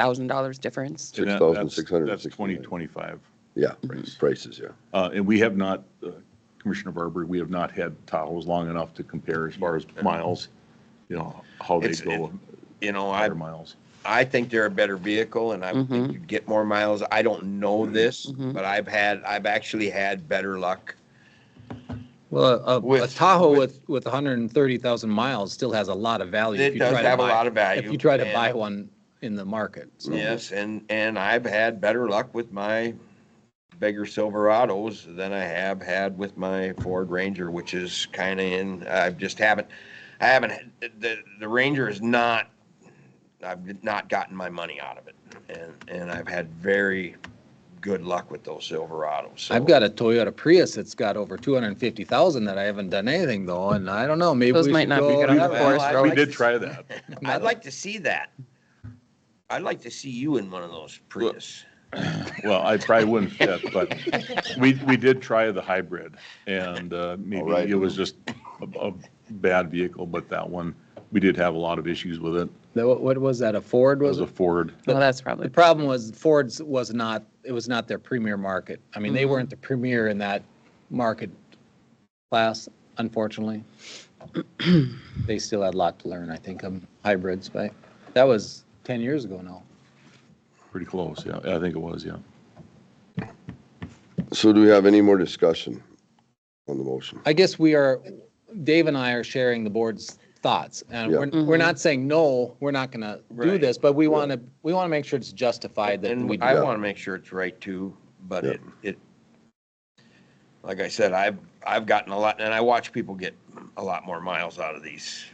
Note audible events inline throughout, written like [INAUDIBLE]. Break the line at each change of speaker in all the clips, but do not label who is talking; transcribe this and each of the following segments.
$6,000 difference?
And that- that's- That's
6,669.
2025.
Yeah,
Price.
prices, yeah.
Uh, And we have not, uh, Commissioner Barber, we have not had Tahoe's long enough to compare as far as miles, you know, how they
It's-
go,
You know, I,
higher miles.
I think they're a better vehicle and I would
Mm-hmm.
think you'd get more miles. I don't know
Mm-hmm.
this,
Mhm.
but I've had, I've actually had better luck.
Well, a- a, a
With-
Tahoe
with-
with, with hundred and thirty thousand miles still has a lot of value. if
It
you
does
try to
have a
buy-
lot of value. Mm,
If you try to
and-
buy one in the market, so.
Yes, and, and I've had better luck with my bigger Silverados than I have had with my Ford Ranger, which is kind of in, I just haven't, I haven't, the, the Ranger is not, I've not gotten my money out of it. And, and I've had very good luck with those Silverados. so-
I've [LAUGHS] got a Toyota Prius that's got over two hundred and fifty thousand that I haven't done anything though, and I don't know, maybe we
Those
should
might not be
go
good on
that
the
route.
forest
Well, I-
road.
We did try that.
I'd like to see that. I'd like to see you in one of those Prius.
Well, I probably wouldn't fit, but we, we did try the hybrid and uh, maybe
right.
it was just a, a bad vehicle, but that one, we did have a lot of issues with it.
The- What, what was that, a Ford
It
was
was a
it?
Ford.
But-
Well, that's
The
probably,
problem was Ford's was not, it was not their premier market. I mean, they weren't the premier in that market class, unfortunately. They still had a lot to learn, I think, on hybrids, but that was 10 years ago now.
Pretty close, yeah. I think it was, yeah.
So do we have any more discussion on the motion?
I guess we are, Dave and I are sharing the board's thoughts. And
Yeah.
we're, we're not saying, no, we're not going to do
Right.
this, but we want to, we want to make sure it's justified that we
And
do.
I
Yeah.
want to make sure it's right too, but
Yeah.
it, it, like I said, I've, I've gotten a lot, and I watch people get a lot more miles out of these.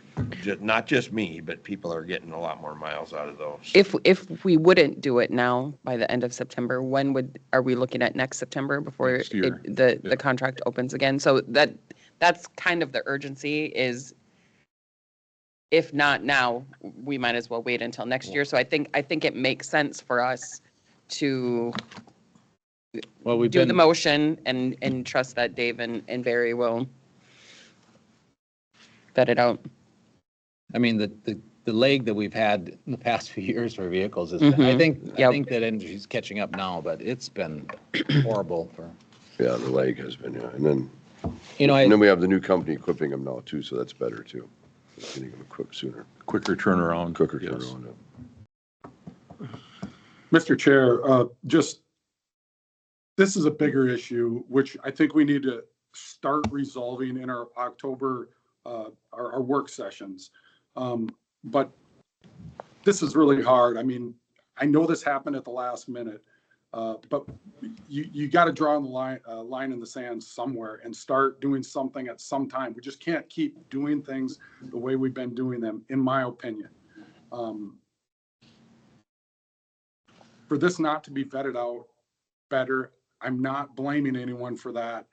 Ju- Not just me, but people are getting a lot more miles out of those.
if, if we wouldn't do it now by the end of September, when would, are we looking at next September before
Next year.
it- the,
Yeah.
the contract opens again? So that, that's kind of the urgency is if not now, we might as well wait until next year. So I think, I think it makes sense for us to
Well, we've
do the
been,
motion and, and trust that Dave and, and Barry will vet it out.
I mean, the, the, the leg that we've had in the past few years for vehicles is, I
Mhm.
think, I
Yep.
think that industry's catching up now, but it's been horrible for,
Yeah, the leg has been, yeah. And then,
you know,
and then
I,
we have the new company equipping them now too, so that's better too. Getting them equipped sooner,
Quicker turnaround.
quicker
yes.
turnaround.
Mr. Chair, uh, just, this is a bigger issue, which I think we need to start resolving in our October, uh, our, our work sessions. Um, But this is really hard. I mean, I know this happened at the last minute, uh, but you, you got to draw the line, uh, line in the sand somewhere and start doing something at some time. We just can't keep doing things the way we've been doing them, in my opinion. Um, for this not to be vetted out better, I'm not blaming anyone for that.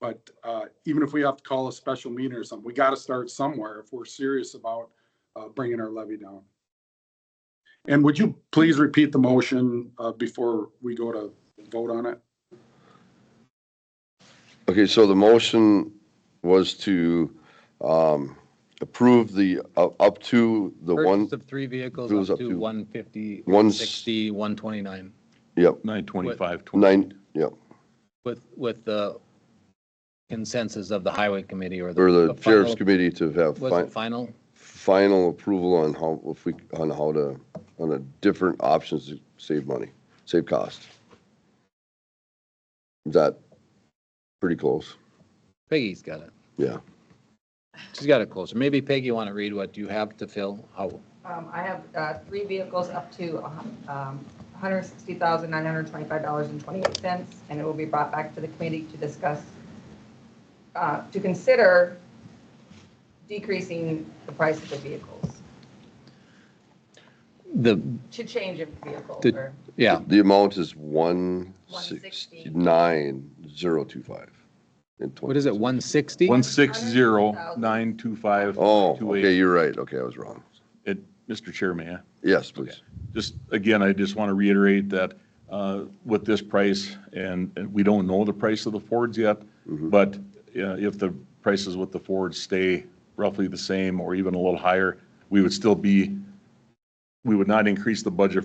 But uh, even if we have to call a special meeting or something, we got to start somewhere if we're serious about uh, bringing our levy down. And would you please repeat the motion uh, before we go to vote on it?
Okay, so the motion was to um, approve the, uh, up to the one,
purchase of three vehicles
Goes
up
up to
to 150,
one s-
160, 129
yep,
925.
nine, yep,
with, with the consensus of the highway committee or the.
or the sheriff's
final-
committee to have
Was
fi-
it final?
final approval on how, if we, on how to, on the different options to save money, save cost. Is that pretty close?
Peggy's got it.
Yeah.
She's got it closer. Maybe Peggy, you want to read what you have to fill? How,
Um, I have, uh, three vehicles up to, a hun- um, hundred sixty thousand, nine hundred twenty-five dollars and twenty-eight cents, and it will be brought back to the committee to discuss, uh, to consider decreasing the price of the vehicles,
the,
to change a vehicle
The-
or
yeah,
The amount is one sixty-nine, zero two five.
what is it, 160?
160,925.
Oh, okay, you're right. Okay, I was wrong.
Mr. Chair, may I?
Yes, please.
Just, again, I just want to reiterate that uh, with this price, and and we don't know the price of the Fords yet,
Mm-hmm.
but uh, if the prices with the Fords stay roughly the same or even a little higher, we would still be, we would not increase the budget